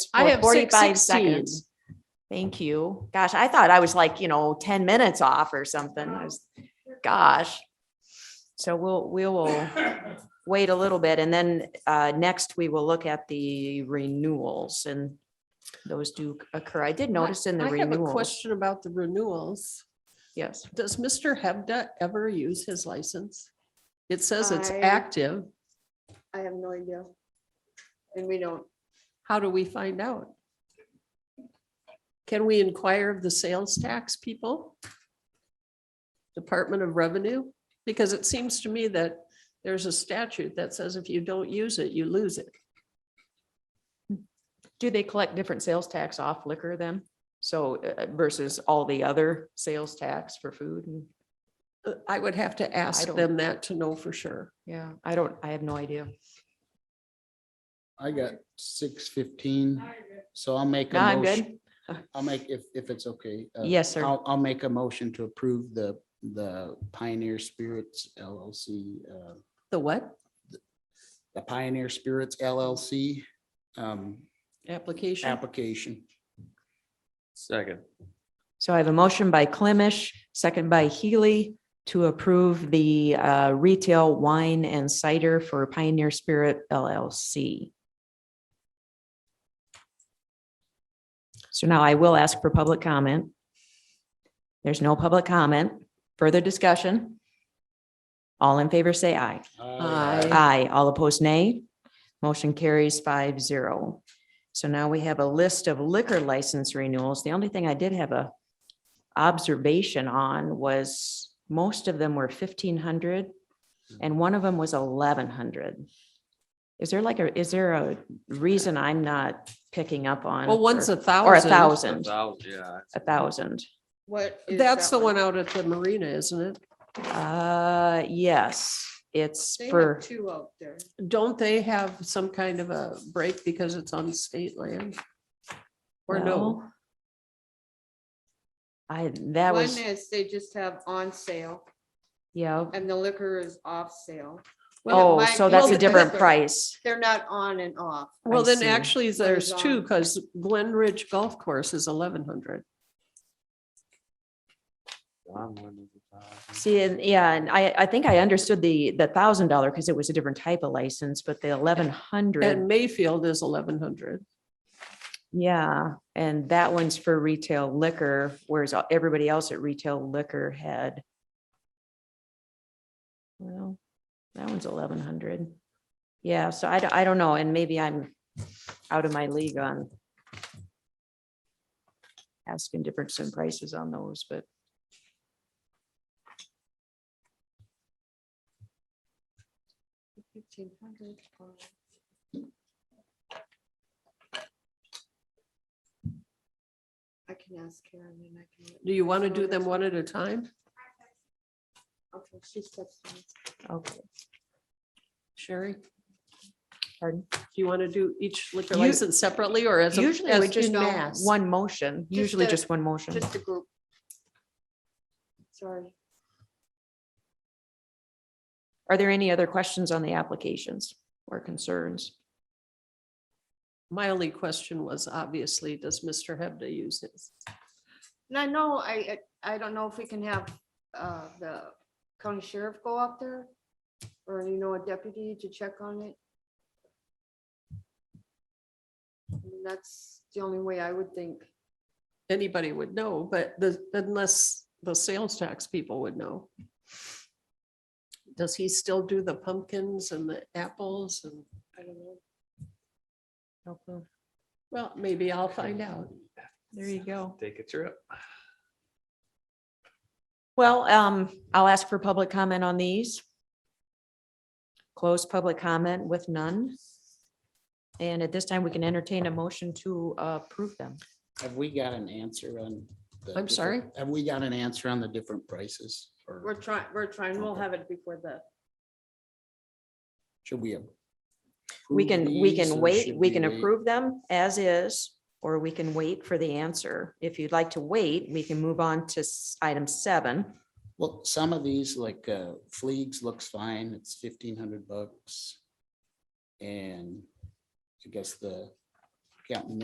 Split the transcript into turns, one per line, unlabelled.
I
or
have
45
6:16.
seconds. Thank you. Gosh, I thought I was like, you know, ten minutes off or something. I was, gosh. So we'll, we will wait a little bit and then uh, next we will look at the renewals and those do occur. I did notice in the
I have a
renewals.
question about the renewals.
Yes.
Does Mr. Hebda ever use his license? It says it's
I-
active.
I have no idea. And we don't,
How do we find out? Can we inquire of the sales tax people? Department of Revenue? Because it seems to me that there's a statute that says if you don't use it, you lose it.
Do they collect different sales tax off liquor then? So uh, versus all the other sales tax for food and,
Uh, I would have to ask
don't-
them that to know for sure.
yeah, I don't, I have no idea.
I got six fifteen, so I'll make. a
No, I'm
motion-
good.
I'll make, if, if it's okay. uh,
Yes, sir.
I'll, I'll make a motion to approve the, the Pioneer Spirits LLC, uh,
The what?
the Pioneer Spirits LLC um,
Application?
application.
Second.
So I have a motion by Clemish, second by Healy to approve the uh, retail wine and cider for Pioneer Spirit LLC. So now I will ask for public comment. There's no public comment. Further discussion? All in favor, say aye.
Uh,
Aye.
Aye. All opposed, nay. Motion carries five zero. So now we have a list of liquor license renewals. The only thing I did have a observation on was most of them were fifteen hundred and one of them was eleven hundred. Is there like a, is there a reason I'm not picking up on?
Well, one's
for-
a thousand.
Or a thousand,
Thousand, yeah.
a thousand.
what? is
That's
that
the one out at the marina, isn't it?
Uh, yes, it's
They have
for,
Two out there.
Don't they have some kind of a break because it's on state land? Or no?
no. I, that
One
was.
is they just have on sale
Yeah,
and the liquor is off sale. Well, it
oh,
might
so
be
that's a
the
different
liquor.
price.
They're not on and off.
Well, then
see.
actually there's um,
is
two
on.
because Glen Ridge Golf Course is eleven hundred.
Don Wyndham's a thousand.
See, and yeah, and I, I think I understood the, the thousand dollar because it was a different type of license, but the eleven
And
hundred,
Mayfield is eleven hundred.
yeah. And that one's for retail liquor, whereas everybody else at retail liquor had. Well, that one's eleven hundred. Yeah, so I, don't- I don't know, and maybe I'm out of my league on asking difference in prices on those, but.
Fifteen hundred. I can ask Karen and I can. let
Do you want to do them one at a time?
Okay, she steps in.
Okay,
Sherry,
pardon.
do you want to do each liquor
You-
license separately or as? a-
Usually
as
we just
in
go
mass?
one motion, usually
a-
just one motion.
Just a group. Sorry.
Are there any other questions on the applications or concerns?
My only question was obviously, does Mr. Hebda use his?
And I know, I, I I don't know if we can have uh, the county sheriff go out there or, you know, a deputy to check on it. I mean, That's the only way I would think.
Anybody would know, but the, unless the sales tax people would know. Does he still do the pumpkins and the apples and,
I don't know.
well, maybe I'll find out.
There you go.
Take a trip.
Well, um, I'll ask for public comment on these. Close public comment with none. And at this time, we can entertain a motion to approve them.
Have we got an answer on? the
I'm
different-
sorry?
Have we got an answer on the different prices?
We're
Or
trying, we're trying, we'll have it before the,
should we?
We
approve
can, we
these,
can
or
wait,
should
we can
wait?
approve them as is, or we can wait for the answer. If you'd like to wait, we can move on to s- item seven.
Well, some of these like uh, Fleegs looks fine. It's fifteen hundred bucks. And I guess the Captain